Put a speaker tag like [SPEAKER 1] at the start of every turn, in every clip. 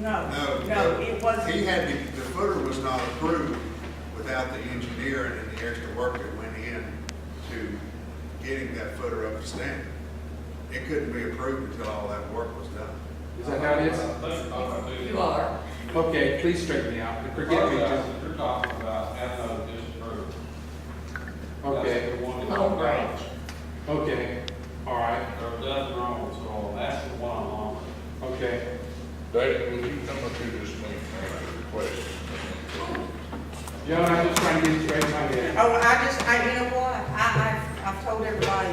[SPEAKER 1] No,
[SPEAKER 2] No,
[SPEAKER 1] no,
[SPEAKER 2] but
[SPEAKER 1] it wasn't.
[SPEAKER 2] He had, the the footer was not approved without the engineering and the extra work that went in to getting that footer up to standard. It couldn't be approved until all that work was done.
[SPEAKER 3] Is that how it is?
[SPEAKER 4] You are.
[SPEAKER 3] Okay, please straighten me out. Forgive me. just-
[SPEAKER 5] You're talking about anode disapproved.
[SPEAKER 3] Okay,
[SPEAKER 5] That's the
[SPEAKER 1] Oh,
[SPEAKER 5] one that-
[SPEAKER 4] Long Branch.
[SPEAKER 3] okay, all right,
[SPEAKER 5] There were nothing wrong with soil, that's the one on.
[SPEAKER 3] okay.
[SPEAKER 6] David, would you come up here this meeting and request?
[SPEAKER 3] John, I'm just trying to get straight in my head.
[SPEAKER 1] Oh, I just, I, you know what, I, I've, I've told everybody,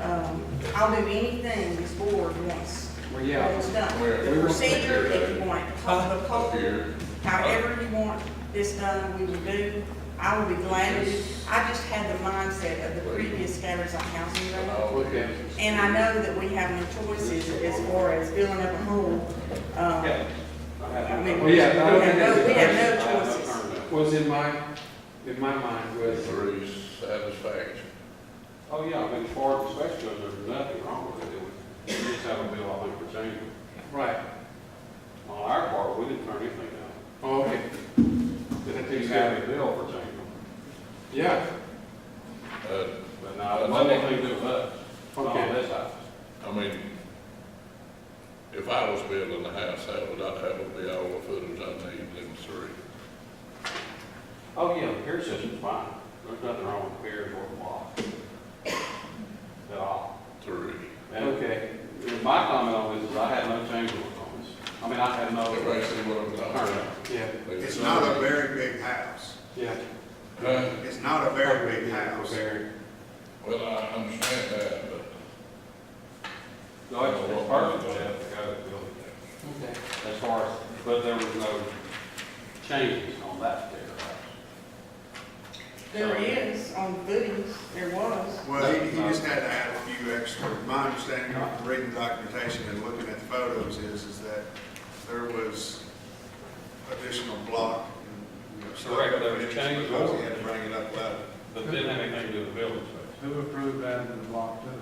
[SPEAKER 1] um, I'll do anything this board wants.
[SPEAKER 3] Well, yeah.
[SPEAKER 1] It's done.
[SPEAKER 6] Where-
[SPEAKER 1] The
[SPEAKER 3] we want to
[SPEAKER 1] procedure,
[SPEAKER 6] take care
[SPEAKER 1] if
[SPEAKER 6] of
[SPEAKER 1] you
[SPEAKER 6] it.
[SPEAKER 1] want, it, call the
[SPEAKER 6] Up
[SPEAKER 1] culvert,
[SPEAKER 6] here.
[SPEAKER 1] however you want this done, we will do. I will be glad to, do- I just had the mindset of the previous scatters on housing
[SPEAKER 6] And
[SPEAKER 1] road.
[SPEAKER 6] all
[SPEAKER 3] Okay.
[SPEAKER 6] this.
[SPEAKER 1] And I know that we have no choices as far as filling up a hole, um,
[SPEAKER 5] Yeah. I had no-
[SPEAKER 1] I mean,
[SPEAKER 3] Well,
[SPEAKER 1] we
[SPEAKER 3] yeah,
[SPEAKER 1] have
[SPEAKER 3] I don't think
[SPEAKER 1] no,
[SPEAKER 3] that's
[SPEAKER 1] we
[SPEAKER 3] a
[SPEAKER 5] I
[SPEAKER 1] have
[SPEAKER 5] had
[SPEAKER 1] no
[SPEAKER 5] no
[SPEAKER 1] choices.
[SPEAKER 5] turn back.
[SPEAKER 3] Was in my, in my mind was,
[SPEAKER 6] Through satisfaction.
[SPEAKER 5] Oh, yeah, I mean, as far as specs goes, there's nothing wrong with it. We just have a bill, I think, for change.
[SPEAKER 3] right,
[SPEAKER 5] On our part, we didn't turn anything down.
[SPEAKER 3] oh, okay. Did I
[SPEAKER 5] We
[SPEAKER 3] take
[SPEAKER 5] just
[SPEAKER 3] that?
[SPEAKER 5] had a bill for change.
[SPEAKER 3] Yeah,
[SPEAKER 6] Uh,
[SPEAKER 5] But now, it wasn't anything to do with us, not
[SPEAKER 3] Okay.
[SPEAKER 5] on this house.
[SPEAKER 6] I mean, if I was building a house, that would, that would be all the footers I need in three.
[SPEAKER 5] Oh, yeah, the pier system's fine. There's nothing wrong with piers or the block. At all.
[SPEAKER 6] Three.
[SPEAKER 5] And
[SPEAKER 3] okay,
[SPEAKER 5] my comment on this is I had no change orders on this. I mean, I had no
[SPEAKER 6] Everybody see
[SPEAKER 5] turn
[SPEAKER 6] what I'm talking
[SPEAKER 5] down.
[SPEAKER 6] about?
[SPEAKER 3] yeah,
[SPEAKER 2] It's not a very big house.
[SPEAKER 3] yeah.
[SPEAKER 6] Huh?
[SPEAKER 2] It's not a very big house.
[SPEAKER 3] Very.
[SPEAKER 6] Well, I understand that, but
[SPEAKER 5] No, it's, it's perfect, they have to go to the building.
[SPEAKER 3] Okay,
[SPEAKER 5] As far as, but there was no changes on that particular house.
[SPEAKER 1] There is on footings, there was.
[SPEAKER 2] Well, he, he just had to add a few extra, my understanding of reading the documentation and looking at the photos is, is that there was additional block. and, you know, stuff
[SPEAKER 5] Correct, there was
[SPEAKER 2] that he
[SPEAKER 5] change
[SPEAKER 2] proposed, He
[SPEAKER 5] order.
[SPEAKER 2] had to bring it up loud.
[SPEAKER 5] But it didn't have anything to do with the building space.
[SPEAKER 7] Who approved adding the block to it?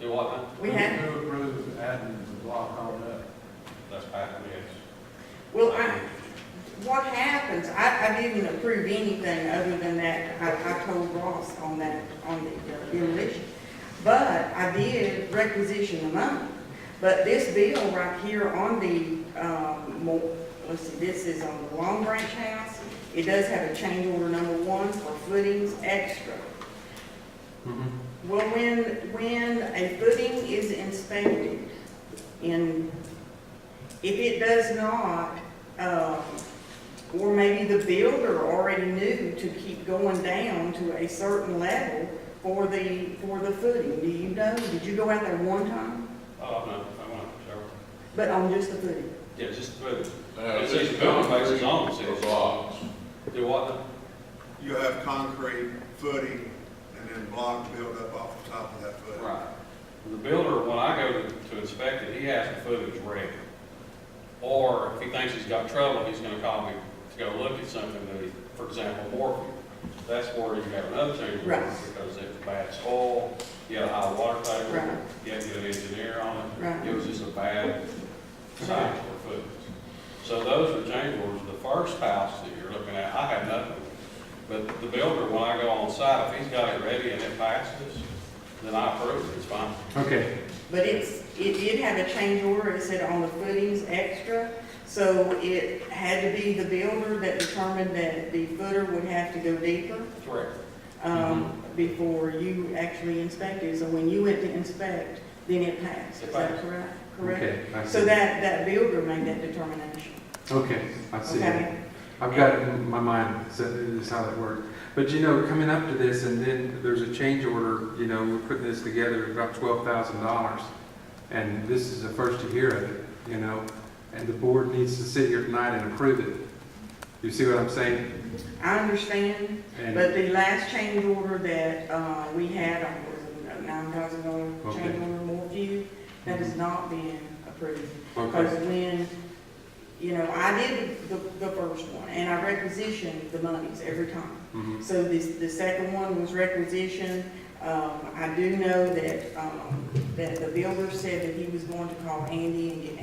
[SPEAKER 5] It wasn't,
[SPEAKER 1] We had,
[SPEAKER 7] Who approved adding the block on that?
[SPEAKER 5] that's back in the days.
[SPEAKER 1] well, I, what happens, I, I didn't approve anything other than that, I, I told Ross on that, on the uh, demolition. But I did requisition the money. But this bill right here on the, um, mo- let's see, this is on the Long Branch House. It does have a change order number one for footings extra. Well, when, when a footing is inspected in, if it does not, um, or maybe the builder already knew to keep going down to a certain level for the, for the footing, do you know? Did you go out there one time?
[SPEAKER 5] Oh, no, I went, sure.
[SPEAKER 1] But on just the footing?
[SPEAKER 5] Yeah, just the building.
[SPEAKER 6] now.
[SPEAKER 5] It's
[SPEAKER 6] this
[SPEAKER 5] just building based
[SPEAKER 6] concrete
[SPEAKER 5] on six.
[SPEAKER 6] for blocks.
[SPEAKER 5] There wasn't,
[SPEAKER 2] You have concrete footing and then block built up off the top of that footing.
[SPEAKER 5] Right. The builder, when I go to to inspect it, he has the footage ready. Or if he thinks he's got trouble, he's gonna call me to go look at something that he, for example, morphine. That's where you have another change order,
[SPEAKER 1] Right.
[SPEAKER 5] because it was bad soil, you had a high water
[SPEAKER 1] Right.
[SPEAKER 5] table, you had to get an engineer on it.
[SPEAKER 1] Right.
[SPEAKER 5] It was just a bad site for footage. So those were change orders. The first house that you're looking at, I had nothing. But the builder, when I go on site, if he's got it ready and it passes, then I approve it, it's fine.
[SPEAKER 3] okay,
[SPEAKER 1] But it's, it did have a change order, it said on the footings extra, so it had to be the builder that determined that the footer would have to go deeper,
[SPEAKER 5] Correct.
[SPEAKER 1] um, before you actually inspected, so when you went to inspect, then it passed, is that correct? Correct?
[SPEAKER 3] okay, I see.
[SPEAKER 1] So that, that builder made that determination,
[SPEAKER 3] Okay, I see.
[SPEAKER 1] okay?
[SPEAKER 3] I've got it in my mind, so it is how it works. But you know, coming up to this, and then there's a change order, you know, we're putting this together, about twelve thousand dollars. And this is the first to hear of it, you know, and the board needs to sit here tonight and approve it. You see what I'm saying?
[SPEAKER 1] I understand
[SPEAKER 3] And,
[SPEAKER 1] But the last change order that, uh, we had on was a nine thousand dollar
[SPEAKER 3] Okay.
[SPEAKER 1] change order more view, that has not been approved. Because
[SPEAKER 3] okay,
[SPEAKER 1] when, you know, I did the, the first one, and I requisitioned the monies every time.
[SPEAKER 3] mhm,
[SPEAKER 1] So this, the second one was requisition, um, I do know that, um, that the builder said that he was going to call Andy and get